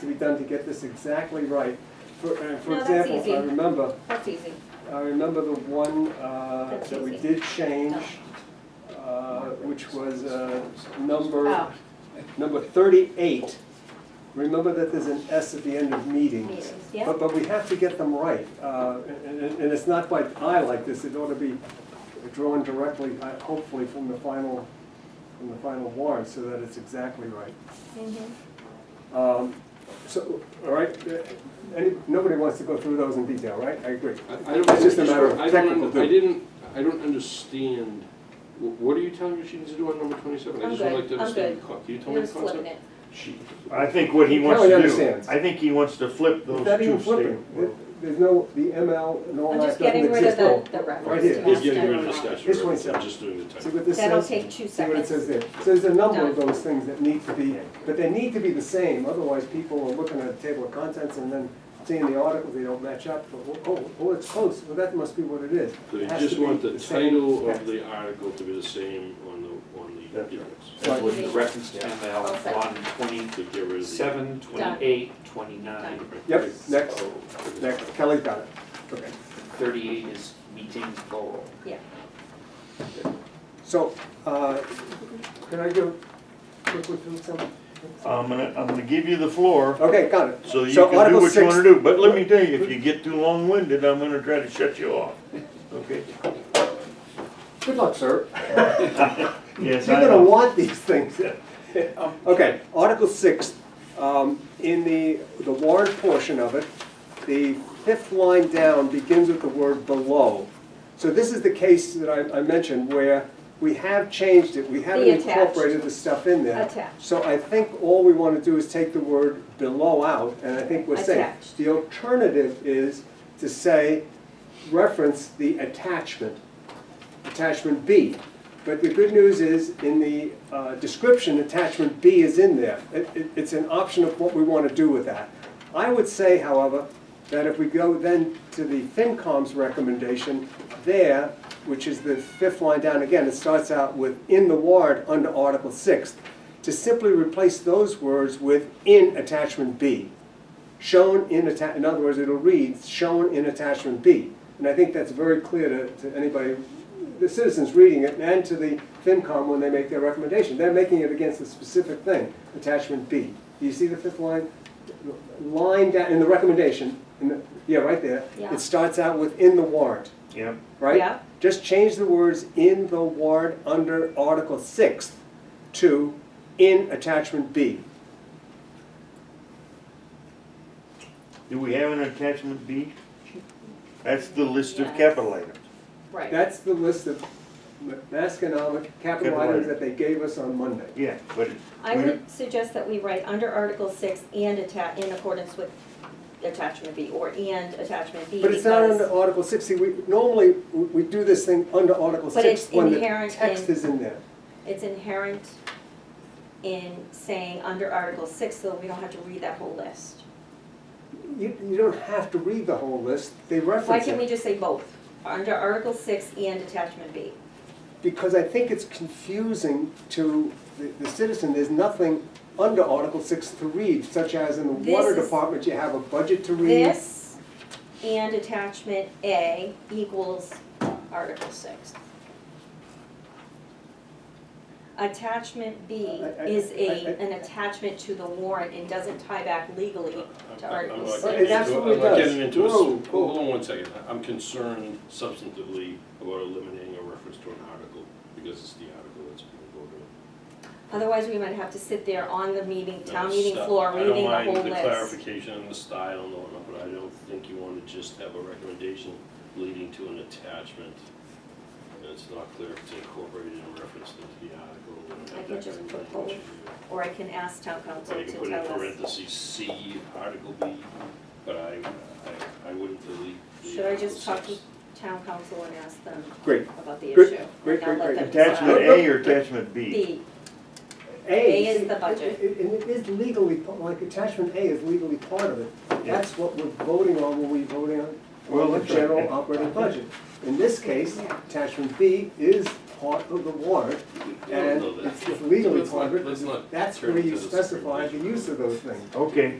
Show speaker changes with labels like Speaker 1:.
Speaker 1: to be done to get this exactly right. For, uh, for
Speaker 2: No, that's
Speaker 1: example,
Speaker 2: easy.
Speaker 1: I remember,
Speaker 2: That's easy.
Speaker 1: I remember the one uh,
Speaker 2: That's
Speaker 1: that we
Speaker 2: easy.
Speaker 1: did change, uh, which was uh, number,
Speaker 2: Oh.
Speaker 1: number thirty-eight. Remember that there's an S at the end of meetings.
Speaker 2: Meetings, yeah.
Speaker 1: But, but we have to get them right, uh, and, and- and it's not by eye like this, it ought to be drawn directly, uh, hopefully, from the final, from the final warrant, so that it's exactly right.
Speaker 2: Mm-hmm.
Speaker 1: Um, So, all right, uh, any, nobody wants to go through those in detail, right? I agree.
Speaker 3: I I don't,
Speaker 1: It's just a matter of
Speaker 3: I don't-
Speaker 1: technical
Speaker 3: I
Speaker 1: thing.
Speaker 3: didn't, I don't understand, Wh- what are you telling me she needs to do on number twenty-seven? I
Speaker 2: I'm
Speaker 3: just would
Speaker 2: good.
Speaker 3: like to
Speaker 2: I'm
Speaker 3: understand
Speaker 2: good.
Speaker 3: the co- can you tell me
Speaker 2: You're
Speaker 3: the
Speaker 2: flipping
Speaker 3: concept?
Speaker 2: it.
Speaker 3: She-
Speaker 4: I think what he wants to
Speaker 1: Kelly
Speaker 4: do.
Speaker 1: understands.
Speaker 4: I think he wants to flip those two
Speaker 1: Not even
Speaker 4: statements.
Speaker 1: flipping. There- There's no, the ML and all
Speaker 2: I'm
Speaker 1: that
Speaker 2: just
Speaker 1: doesn't
Speaker 2: getting rid of
Speaker 1: exist.
Speaker 2: the,
Speaker 1: No.
Speaker 2: the reference.
Speaker 1: Right here.
Speaker 2: to
Speaker 3: He's
Speaker 2: that
Speaker 3: getting rid of the
Speaker 2: stuff.
Speaker 3: statute,
Speaker 1: This one's
Speaker 3: reference, I'm
Speaker 1: done.
Speaker 3: just doing the
Speaker 1: See
Speaker 3: type.
Speaker 1: what this says?
Speaker 2: That'll take two
Speaker 1: See what it says
Speaker 2: seconds.
Speaker 1: there. So there's a number of
Speaker 2: Done.
Speaker 1: those things that need to be, but they need to be the same, otherwise people are looking at a table of contents and then seeing the article, they don't match up. Oh, Oh, oh, it's close, well, that must be what it is.
Speaker 3: So you
Speaker 1: It has
Speaker 3: just
Speaker 1: to be
Speaker 3: want the
Speaker 1: same
Speaker 3: title of
Speaker 1: text.
Speaker 3: the article to be the same on the, on the
Speaker 4: That's right.
Speaker 3: difference.
Speaker 5: That would be reference to ML on
Speaker 3: To get rid of the.
Speaker 5: twenty-seven, twenty-eight, twenty-nine,
Speaker 1: Yep, next,
Speaker 3: Oh, okay.
Speaker 1: next, Kelly's got it. Okay.
Speaker 5: thirty-eight is meetings plural.
Speaker 2: Yeah.
Speaker 1: So, uh, can I go quickly through some?
Speaker 4: I'm gonna, I'm gonna give you the floor,
Speaker 1: Okay, got it.
Speaker 4: so you
Speaker 1: So
Speaker 4: can do
Speaker 1: Article
Speaker 4: what you wanna
Speaker 1: six-
Speaker 4: do, but let me tell you, if you get too long-winded, I'm gonna try to shut you off, okay?
Speaker 1: Good luck, sir.
Speaker 4: Yes,
Speaker 1: You're
Speaker 4: I
Speaker 1: gonna
Speaker 4: know.
Speaker 1: want these things. Okay, Article six, um, in the, the warrant portion of it, the fifth line down begins with the word below. So this is the case that I, I mentioned where we have changed it, we haven't
Speaker 2: The attached.
Speaker 1: incorporated the stuff in there.
Speaker 2: Attached.
Speaker 1: So I think all we wanna do is take the word below out, and I think we're safe.
Speaker 2: Attached.
Speaker 1: The alternative is to say, reference the attachment attachment B. But the good news is, in the uh, description, attachment B is in there. It- it- It's an option of what we want to do with that. I would say, however, that if we go then to the FinCom's recommendation there, which is the fifth line down again, it starts out with "in the warrant" under Article 6, to simply replace those words with "in attachment B." shown in atta, in other words, it'll read, shown in attachment B. And I think that's very clear to, to anybody, the citizens reading it, and to the FinCom when they make their recommendation. They're making it against a specific thing, attachment B. Do you see the fifth line? Line down, in the recommendation, in the, yeah, right there.
Speaker 2: Yeah.
Speaker 1: It starts out with in the warrant,
Speaker 4: Yep,
Speaker 1: right?
Speaker 2: Yeah.
Speaker 1: Just change the words in the warrant under Article Sixth to in attachment B.
Speaker 4: do we have an attachment B? That's the list of
Speaker 2: Yes.
Speaker 4: capital items.
Speaker 2: Right.
Speaker 1: That's the list of Masconomic capital
Speaker 4: Capital
Speaker 1: items
Speaker 4: items.
Speaker 1: that they gave us on Monday.
Speaker 4: Yeah, but it-
Speaker 2: I
Speaker 4: we-
Speaker 2: would suggest that we write under Article six and atta, in accordance with attachment B, or and attachment B.
Speaker 1: But it's not
Speaker 2: because-
Speaker 1: under Article six, See, we, normally, we we do this thing under Article
Speaker 2: But
Speaker 1: six
Speaker 2: it's
Speaker 1: when the
Speaker 2: inherent
Speaker 1: text
Speaker 2: in-
Speaker 1: is in there.
Speaker 2: It's inherent in saying under Article six, so we don't have to read that whole list.
Speaker 1: You, you don't have to read the whole list, they
Speaker 2: Why
Speaker 1: reference
Speaker 2: can't we
Speaker 1: it.
Speaker 2: just say both, under Article six and attachment B?
Speaker 1: Because I think it's confusing to the, the citizen, there's nothing under Article six to read, such as in the
Speaker 2: This
Speaker 1: water
Speaker 2: is-
Speaker 1: department, you have a budget to read.
Speaker 2: This and attachment A equals Article six. Attachment B
Speaker 1: I- I-
Speaker 2: is a,
Speaker 1: I- I-
Speaker 2: an attachment to the warrant and doesn't tie back legally to
Speaker 3: I'm- I'm- I'm
Speaker 2: Article
Speaker 3: not
Speaker 2: six.
Speaker 3: getting
Speaker 1: That's
Speaker 3: into-
Speaker 1: what it
Speaker 3: I'm not
Speaker 1: does.
Speaker 3: getting into it,
Speaker 1: Whoa,
Speaker 3: so,
Speaker 1: whoa.
Speaker 3: hold on one second, I- I'm concerned substantively about eliminating a reference to an article, because it's the article that's being voted on.
Speaker 2: Otherwise, we might have to sit there on the meeting, town
Speaker 3: No,
Speaker 2: meeting
Speaker 3: stop.
Speaker 2: floor, reading the
Speaker 3: uh, I
Speaker 2: whole
Speaker 3: don't mind
Speaker 2: list.
Speaker 3: the clarification and the style and all that, but I don't think you wanna just have a recommendation leading to an attachment. And it's not clear if it's incorporated in reference to the article. and
Speaker 2: I
Speaker 3: have
Speaker 2: can
Speaker 3: that
Speaker 2: just
Speaker 3: kind
Speaker 2: put
Speaker 3: of language.
Speaker 2: Or I can ask town council
Speaker 3: Or you
Speaker 2: to
Speaker 3: can put in
Speaker 2: tell us.
Speaker 3: parentheses, C, Article B, but I, I, I wouldn't delete the
Speaker 2: Should I just talk
Speaker 3: Article
Speaker 2: to
Speaker 3: six.
Speaker 2: town council and ask them
Speaker 1: Great.
Speaker 2: about the
Speaker 1: Great,
Speaker 2: issue?
Speaker 1: great,
Speaker 2: Now let
Speaker 1: great,
Speaker 2: them
Speaker 1: great.
Speaker 4: Attachment
Speaker 2: decide.
Speaker 4: A or attachment B?
Speaker 2: B,
Speaker 1: A.
Speaker 2: A is the
Speaker 1: it-
Speaker 2: budget.
Speaker 1: it- And it is legally, like attachment A is legally part of it.
Speaker 4: Yeah.
Speaker 1: That's what we're voting on when we voting on,
Speaker 4: Well,
Speaker 1: on the
Speaker 4: that's right.
Speaker 1: general operating budget. In this case, attachment B is part of the warrant and
Speaker 3: Although that-
Speaker 1: it's it's legally
Speaker 3: Let's not-
Speaker 1: part of
Speaker 3: let's
Speaker 1: it.
Speaker 3: not
Speaker 1: That's
Speaker 3: turn
Speaker 1: where
Speaker 3: it
Speaker 1: you
Speaker 3: to the Supreme
Speaker 1: specify the
Speaker 3: Court.
Speaker 1: use of those things.
Speaker 4: Okay.